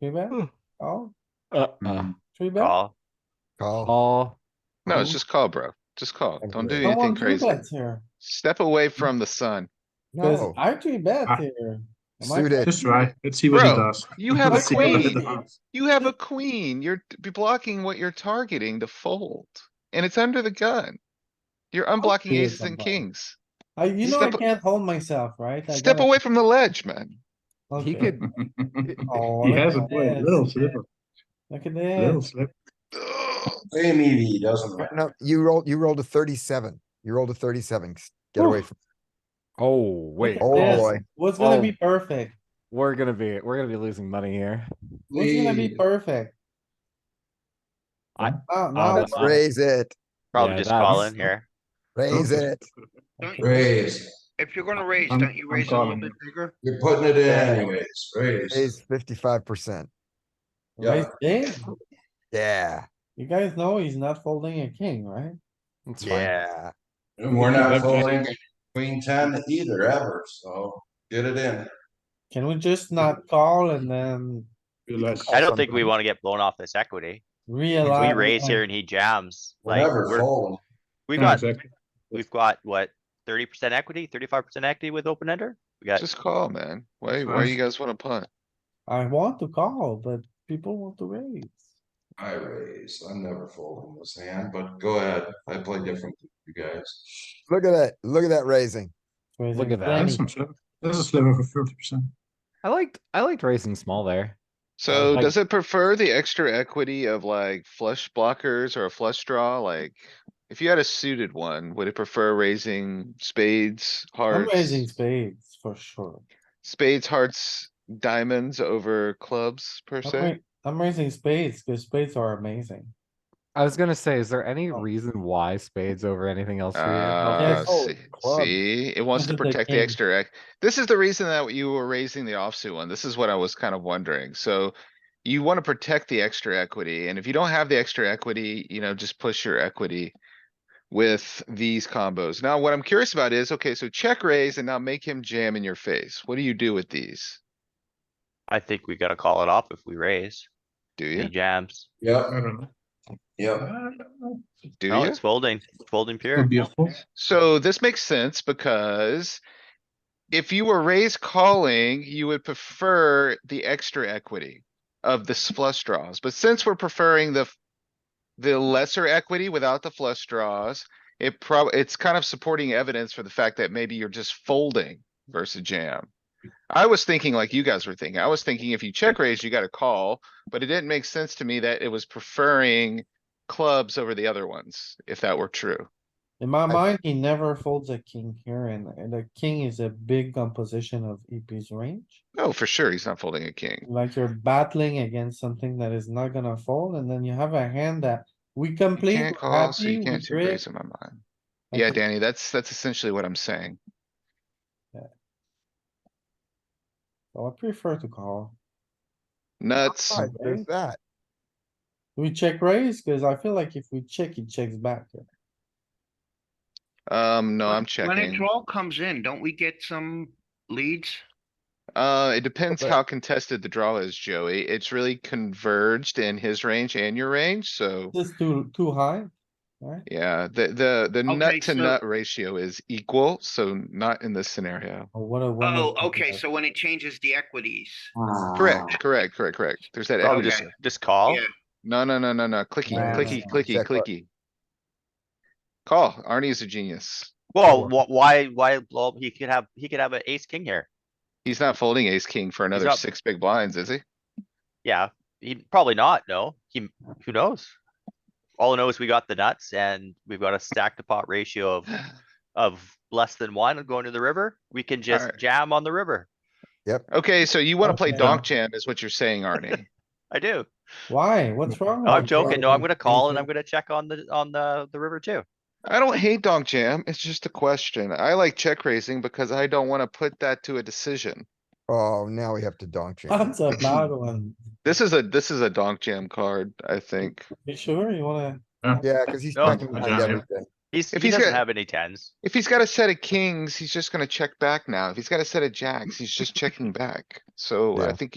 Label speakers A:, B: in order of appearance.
A: Three bet?
B: Hmm.
A: Oh,
B: Uh-uh.
C: Mm,
A: three bet?
D: Call.
E: Call.
B: Call.
C: No, it's
A: Mhm.
C: just call, bro. Just call.
E: Thank
C: Don't
E: you.
C: do
A: I
C: anything
A: want three
C: crazy.
A: bets here.
C: Step away from the sun.
A: Cause
E: No.
A: I three bet
F: Ah.
A: here. Am I
E: Suited.
F: Just try. Let's see what
C: Bro,
F: it does.
C: you have
F: Let's
A: a
F: see what it
A: queen.
F: does.
C: You have a queen. You're t- blocking what you're targeting to fold. And it's under the gun. You're unblocking
A: Okay,
C: aces and
A: somebody.
C: kings.
A: I, you know I
C: Step-
A: can't hold myself, right? I
C: Step
A: gotta-
C: away from the ledge, man.
A: Okay.
B: He could,
A: Oh,
F: He
A: look
F: has a
A: at
F: play,
A: this.
F: little slipper,
A: Look at
F: little
A: this.
F: slipper.
G: Same EV, doesn't matter.
E: No, you rolled, you rolled a thirty-seven. You rolled a thirty-seven. Get away
A: Oof.
E: from,
B: oh,
A: Look
B: wait,
A: at
E: Oh,
A: this.
E: boy.
A: What's gonna be
B: Oh.
A: perfect?
B: we're gonna be, we're gonna be losing money here.
A: What's gonna be
F: Hey.
A: perfect?
B: I- uh,
A: Wow, now,
B: that's-
E: raise it,
D: Probably
B: Yeah,
D: just call
B: that's-
D: in here.
E: raise
F: Okay.
E: it.
G: Raise.
H: If you're gonna raise,
F: I'm-
H: don't you
F: I'm
H: raise it a little
F: calling
H: bit bigger?
G: You're putting it in anyways, raise.
E: Raise fifty-five percent.
A: raise big.
E: Yeah,
A: You guys know he's not folding a king, right?
B: It's fine.
E: yeah.
G: And we're not
F: That's right.
G: folding queen ten either ever, so get it in.
A: Can we just not call and then
F: Realize.
D: I don't think we wanna get blown off this equity. If
A: realize?
D: we raise here and he jams,
G: We're
D: like,
G: Never
D: we're,
G: fold.
D: we've
F: No,
D: got,
F: exactly.
D: we've got, what, thirty percent equity, thirty-five percent equity with open ender? We got,
C: Just call, man. Why, why
F: Fine.
C: you guys wanna punt?
A: I want to call, but people want to raise.
G: I raise, I'm never folding this hand, but go ahead, I play different than you guys.
E: Look at that, look at that raising.
B: Look at that.
F: That's
A: Raising
F: some slipper. That's a sliver for thirty percent.
B: I liked, I liked raising small there.
C: So
B: like-
C: does it prefer the extra equity of like flush blockers or a flush draw? Like, if you had a suited one, would it prefer raising spades,
A: 20. I'm raising
C: hearts,
A: spades for sure.
C: spades, hearts, diamonds over clubs per
A: I'm
C: se?
A: ra- I'm raising spades, cause spades are amazing.
B: I was gonna say, is there any
A: Oh.
B: reason why spades over anything else? here?
C: Uh,
A: Yes.
B: Okay.
E: Oh,
C: see,
E: club.
C: see, it wants to
A: This is a
C: protect the
A: king.
C: extra ec. This is the reason that you were raising the offsuit one. This is what I was kind of wondering. So you want to protect the extra equity, and if you don't have the extra equity, you know, just push your equity with these combos. Now, what I'm curious about is, okay, so check raise and now make him jam in your face. What do you do with these?
D: I think we gotta call it off if we raise.
C: Do
D: He
C: you?
D: jams.
F: I
G: Yep,
F: don't know.
G: yep.
F: I don't know.
C: Do
D: No,
C: you?
D: it's folding, It's folding pure.
F: Could be a fold.
C: So this makes sense because if you were raised calling, you would prefer the extra equity of the s- flush draws, but since we're preferring the f- the lesser equity without the flush draws, it prob, it's kind of supporting evidence for the fact that maybe you're just folding versus jam. I was thinking like you guys were thinking. I was thinking if you check raise, you got a call, but it didn't make sense to me that it was preferring clubs over the other ones, if that were true.
A: In my mind, he never folds a king here and, and the king is a big composition of EP's range.
C: Oh, for sure, he's not folding a king.
A: Like you're battling against something that is not gonna fold and then you have a hand that we complete.
C: Can't
A: we're
C: call, so you
A: happy, we
C: can't see
A: break.
C: raise in my mind.
A: I
C: Yeah,
A: think-
C: Danny, that's, that's essentially what I'm saying.
A: So oh, I prefer to call.
C: Nuts.
E: Alright, There's that.
A: We check raise, cause I feel like if we check, he checks back. here.
C: Um, no, I'm
H: When a
C: checking.
H: draw comes in, don't we get some leads?
C: Uh, it depends
E: Okay.
C: how contested the draw is, Joey. It's really converged in his range and your range, so.
A: This too, too high, right?
C: Yeah, the, the, the
H: Okay,
C: nut to
H: so-
C: nut ratio is equal, so not in this scenario.
A: Or what a
H: Oh,
A: wonderful
H: okay,
A: guy.
H: so when it changes the equities,
C: Correct, correct, correct, correct. There's
H: Oh,
C: that
D: Probably
C: equity.
D: just, just call.
H: Yeah.
C: No, no, no, no, no, clicky,
A: Nah,
C: clicky,
A: nah,
C: clicky,
E: check what-
C: clicky. Call, Arnie is a genius.
D: Well, wh- why, why blow up? He could have, he could have an ace king here.
C: He's not folding ace king for another
D: not-
C: six big blinds, is he?
D: Yeah, he probably not, no. He, who knows? All I know is we got the nuts and we've got a stack to pot ratio of, of less than one going to the river. We can just
C: Alright.
D: jam on the river.
C: Okay, so you wanna play
A: Okay.
C: donk jam is what you're saying, Arnie.
D: I do.
A: Why? What's
C: Oh,
A: wrong?
D: No, I'm
A: with
D: joking. No, I'm gonna call and I'm
A: Ethan?
D: gonna check on the, on the, the river too.
C: I don't hate donk jam, it's just a question. I like check raising because I don't wanna put that to a decision.
E: Oh, now we have to donk jam.
A: That's a bad one.
C: This is a, this is a donk jam card, I think.
A: You sure you wanna?
E: Yeah, cuz he's
D: No.
E: checking behind
F: Yeah.
E: everything.
D: He's, he
C: If he's
D: doesn't
C: got-
D: have any tens.
C: If he's got a set of kings, he's just gonna check back now. If he's got a set of jacks, he's just checking back. So I
E: Yeah.
C: think